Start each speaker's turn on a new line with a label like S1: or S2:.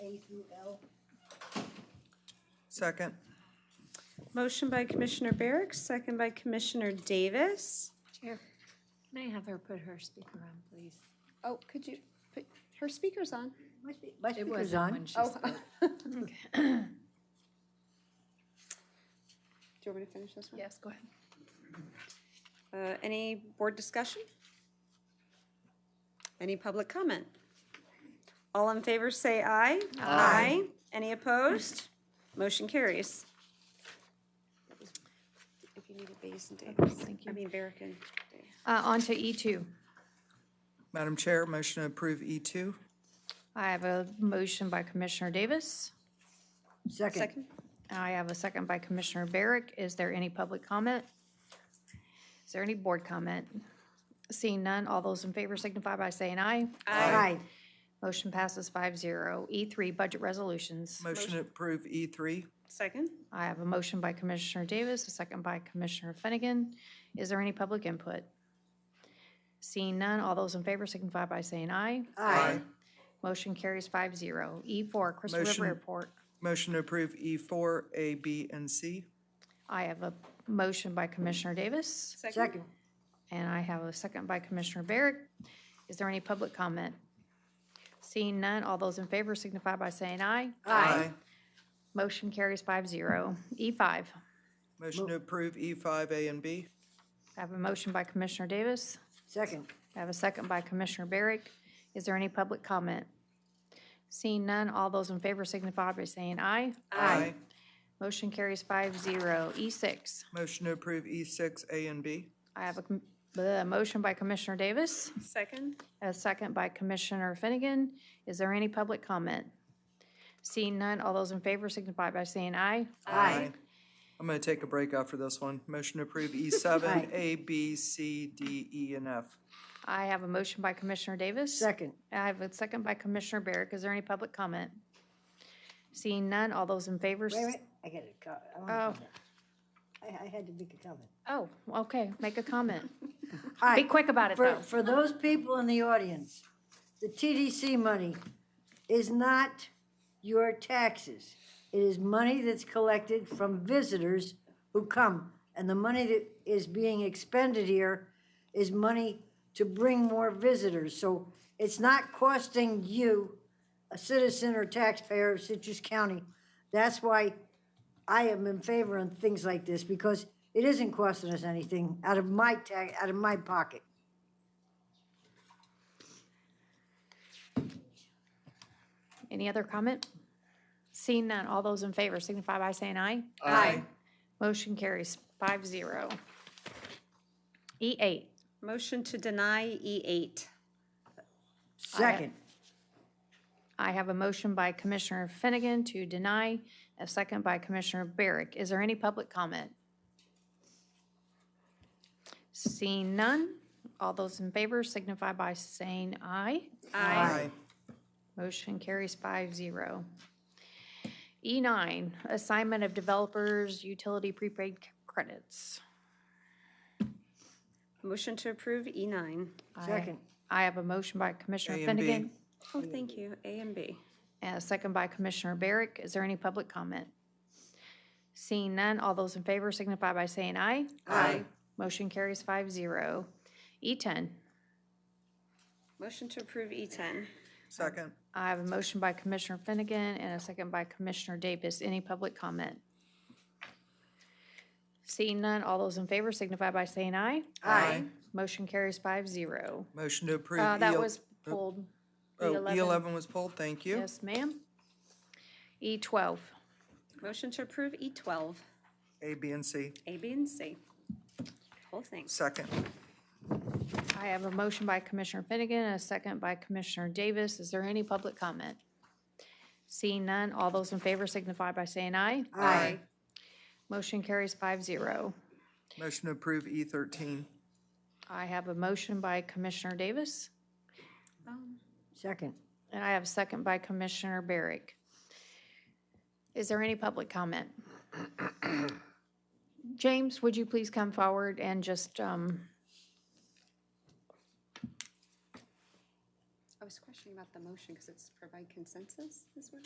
S1: UL.
S2: Second.
S3: Motion by Commissioner Barrick, second by Commissioner Davis.
S4: Chair, may I have her put her speaker on, please?
S5: Oh, could you put her speakers on?
S1: My spe- my
S4: It
S1: speaker's
S4: was
S1: on.
S4: on when she
S5: Oh.
S4: spoke.
S5: Do you want me to finish this one?
S4: Yes, go ahead.
S3: Uh, Any board discussion? Any public comment? All in favor, say aye. Aye. Any opposed? Motion carries.
S5: If you needed these and Davis.
S4: Thank
S3: I
S4: you.
S3: mean, Barrick and Davis.
S6: Uh, On to E2.
S2: Madam Chair, motion to approve E E2.
S6: I have a motion by Commissioner Davis.
S1: Second.
S3: Second.
S6: I have a second by Commissioner Barrick. Is there any public comment? Is there any board comment? Seeing none, all those in favor signify by saying aye.
S1: Aye.
S6: Motion passes 5-0. E3, budget resolutions.
S2: Motion to approve E E3.
S3: Second.
S6: I have a motion by Commissioner Davis, a second by Commissioner Finnegan. Is there any public input? Seeing none, all those in favor signify by saying aye.
S2: Aye.
S6: Motion carries 5-0. E4, Crystal
S2: Motion-
S6: River Airport.
S2: Motion to approve E4, A, B, and C.
S6: I have a motion by Commissioner Davis,
S1: Second.
S6: and I have a second by Commissioner Barrick. Is there any public comment? Seeing none, all those in favor signify by saying aye. Motion carries E 5-0. E5, I
S2: Motion to approve E5, A, and B.
S6: have a motion by Commissioner Davis.
S1: Second.
S6: I have a second by Commissioner Barrick. Is there any public comment? Seeing none, all those in favor signify by saying aye.
S2: Aye.
S6: Motion carries E 5-0. E6,
S2: Motion to approve E6, A, and B.
S6: I have a com- a motion by Commissioner Davis.
S3: Second.
S6: A second by Commissioner Finnegan. Is there any public comment? Seeing none, all those in favor signify by saying aye.
S2: Aye. I'm going to take a break after this one. Motion to approve E7, A, B, C, D, E, and F.
S6: I have a motion by Commissioner Davis.
S1: Second.
S6: I have a second by Commissioner Barrick. Is there any public comment? Seeing none, all those in favor? s-
S1: Wait a minute, I got a co- I wanna
S6: Oh.
S1: comment. I, I had to make a comment.
S6: Oh, okay, make a comment.
S1: Hi.
S6: Be quick about it,
S1: For,
S6: though.
S1: for those people in the audience, the TDC money is not your taxes. It is money that's collected from visitors who come. And the money that is being expended here is money to bring more visitors. So it's not costing you, a citizen or taxpayer of Citrus County. That's why I am in favor on things like this because it isn't costing us anything out of my tax, out of my pocket.
S6: Any other comment? Seeing none, all those in favor signify by saying aye.
S2: Aye.
S6: Motion carries five zero. E eight,
S3: Motion to deny E E8.
S1: Second.
S6: I have a motion by Commissioner Finnegan to deny, a second by Commissioner Barrick. Is there any public comment? Seeing none, all those in favor signify by saying aye.
S2: Aye.
S6: Motion carries five zero. E nine, assignment of developers utility prepaid c- credits.
S3: Motion to approve E E9.
S6: I-
S1: Second.
S6: I have a motion by Commissioner
S2: A and B.
S6: Finnegan
S3: Oh, thank you. A and B.
S6: and a second by Commissioner Barrick. Is there any public comment? Seeing none, all those in favor signify by saying aye.
S2: Aye.
S6: Motion carries five zero. E ten,
S3: Motion to approve E E10.
S2: Second.
S6: I have a motion by Commissioner Finnegan and a second by Commissioner Davis. Any public comment? Seeing none, all those in favor signify by saying aye.
S2: Aye.
S6: Motion carries five zero.
S2: Motion to approve.
S6: Uh,
S2: E-
S6: that was pulled.
S2: Oh,
S6: E11.
S2: E11 was pulled, thank you.
S6: Yes, ma'am. E twelve,
S3: Motion to approve E12,
S2: A, B, and C.
S3: A, B, and C. Whole thing.
S2: Second.
S6: I have a motion by Commissioner Finnegan and a second by Commissioner Davis. Is there any public comment? Seeing none, all those in favor signify by saying aye.
S2: Aye.
S6: Motion carries five zero.
S2: Motion to approve E E13.
S6: I have a motion by Commissioner Davis
S1: Second.
S6: and I have a second by Commissioner Barrick. Is there any public comment? James, would you please come forward and just, um,
S5: I was questioning about the motion because it's provide consensus, is what